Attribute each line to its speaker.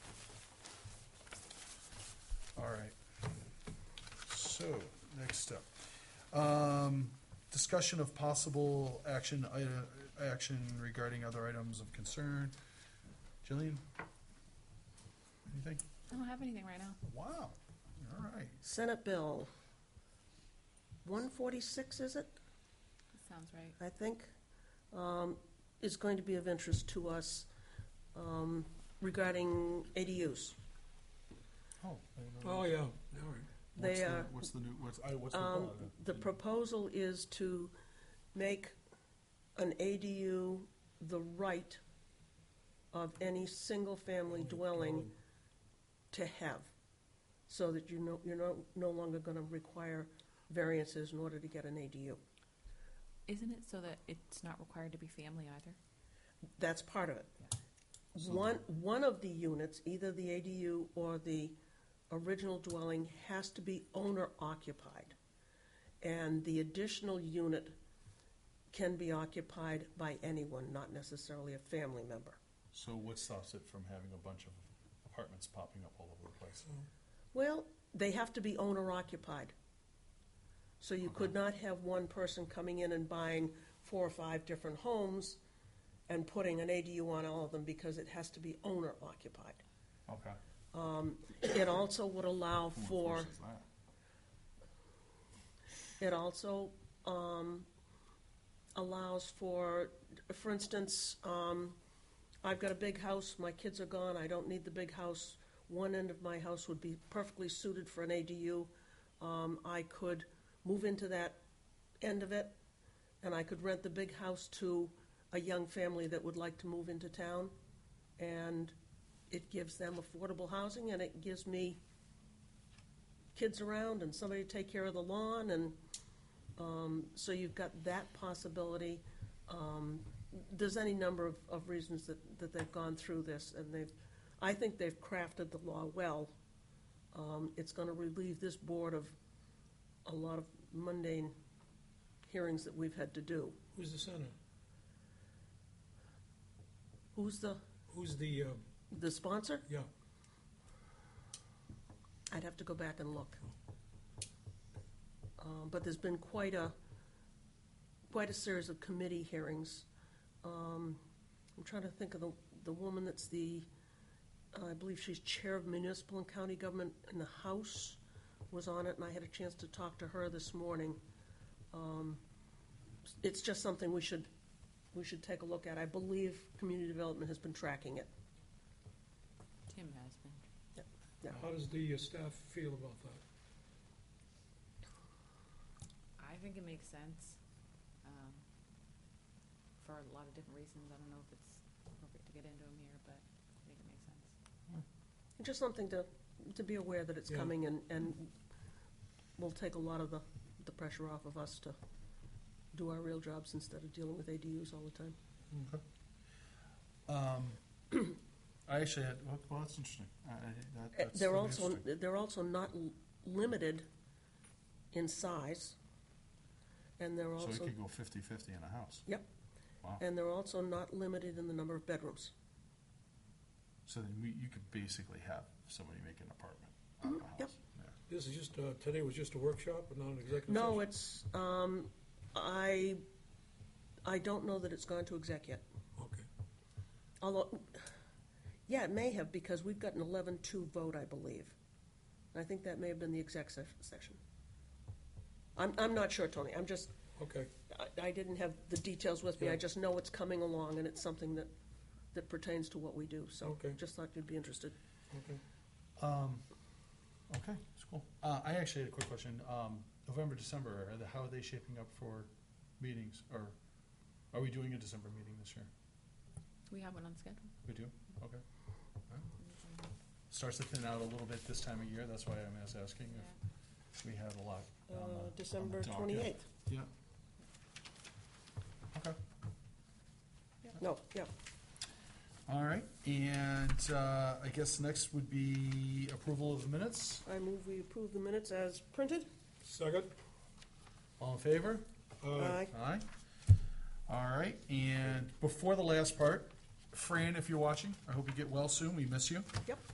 Speaker 1: All right. So, next up. Um, discussion of possible action, i- action regarding other items of concern. Jillian? Anything?
Speaker 2: I don't have anything right now.
Speaker 1: Wow, all right.
Speaker 3: Senate Bill one forty-six, is it,
Speaker 2: That sounds right.
Speaker 3: I think, um, is going to be of interest to us, um, regarding ADUs.
Speaker 1: Oh. I don't know.
Speaker 4: Oh, yeah, all
Speaker 1: What's
Speaker 3: They
Speaker 1: the-
Speaker 3: are-
Speaker 1: What's the new, what's, I, what's the
Speaker 3: Um,
Speaker 1: law?
Speaker 3: the proposal is to make an ADU the right of any single-family dwelling to have, so that you know, you're no, no longer gonna require variances in order to get an ADU.
Speaker 2: Isn't it so that it's not required to be family either?
Speaker 3: That's part of it.
Speaker 1: So
Speaker 3: One, one of the units, either the ADU or the original dwelling, has to be owner occupied. And the additional unit can be occupied by anyone, not necessarily a family member.
Speaker 1: So what stops it from having a bunch of apartments popping up all over the place?
Speaker 3: Well, they have to be owner occupied. So you could not have one person coming in and buying four or five different homes and putting an ADU on all of them because it has to be owner occupied. Um,
Speaker 1: Okay.
Speaker 3: It also would allow
Speaker 1: Who
Speaker 3: for.
Speaker 1: enforces that?
Speaker 3: It also um, allows for, for instance, um, I've got a big house, my kids are gone, I don't need the big house. One end of my house would be perfectly suited for an ADU. Um, I could move into that end of it, and I could rent the big house to a young family that would like to move into town. And it gives them affordable housing, and it gives me kids around and somebody to take care of the lawn and, um, so you've got that possibility. Um, there's any number of, of reasons that, that they've gone through this and they've, I think they've crafted the law well. Um, it's gonna relieve this board of a lot of mundane hearings that we've had to do.
Speaker 4: Who's the senator?
Speaker 3: Who's the,
Speaker 4: Who's the, uh,
Speaker 3: the sponsor?
Speaker 4: yeah,
Speaker 3: I'd have to go back and look. Um, But there's been quite a, quite a series of committee hearings. Um, I'm trying to think of the, the woman that's the, I believe she's Chair of Municipal and County Government in the House, was on it, and I had a chance to talk to her this morning. Um, It's just something we should, we should take a look at. I believe Community Development has been tracking it.
Speaker 2: Tim has been.
Speaker 4: how does the uh, staff feel about that?
Speaker 2: I think it makes sense, um, for a lot of different reasons. I don't know if it's appropriate to get into them here, but I think it makes sense.
Speaker 3: Just something to, to be aware that it's
Speaker 4: Yeah.
Speaker 3: coming and, and will take a lot of the, the pressure off of us to do our real jobs instead of dealing with ADUs all the time.
Speaker 1: Um, I actually had, well, well, that's interesting. I- I- that-
Speaker 3: Eh,
Speaker 1: that's
Speaker 3: They're
Speaker 1: really
Speaker 3: also,
Speaker 1: interesting.
Speaker 3: they're also not l- limited in size, and they're
Speaker 1: So it
Speaker 3: also,
Speaker 1: could go fifty-fifty in a house.
Speaker 3: Yep.
Speaker 1: Wow.
Speaker 3: and they're also not limited in the number of bedrooms.
Speaker 1: So then we, you could basically have somebody make an apartment out of a
Speaker 3: yep.
Speaker 1: house. Yeah.
Speaker 4: This is just, uh, today was just a workshop and not an executive session?
Speaker 3: No, it's, um, I, I don't know that it's gone to exec yet.
Speaker 4: Okay,
Speaker 3: Although, yeah, it may have, because we've got an eleven-two vote, I believe. I think that may have been the exec se- session. I'm, I'm not sure, Tony, I'm just,
Speaker 4: okay,
Speaker 3: I, I didn't have the details with me, I
Speaker 4: Yeah.
Speaker 3: just know it's coming along, and it's something that, that pertains to what we do, so
Speaker 4: Okay.
Speaker 3: just thought you'd be interested.
Speaker 4: okay.
Speaker 1: Um, okay, that's cool. Uh, I actually had a quick question. Um, November, December, are the, how are they shaping up for meetings? Or are we doing a December meeting this year?
Speaker 2: We have one on schedule.
Speaker 1: We do? Okay. Starts to thin out a little bit this time of year. That's why I'm just asking
Speaker 2: Yeah.
Speaker 1: if we had a lot. on the- on the
Speaker 3: Uh, December
Speaker 1: docket.
Speaker 3: twenty-eighth,
Speaker 1: Yeah. Okay.
Speaker 3: no, yeah,
Speaker 1: Uh, All right. And uh, I guess next would be approval of minutes.
Speaker 3: I move we approve the minutes as printed.
Speaker 4: Second? Uh,
Speaker 1: All in favor?
Speaker 3: Aye.
Speaker 1: Aye. All right, and before the last part, Fran, if you're watching, I hope you get well soon, we miss you.
Speaker 3: Yep.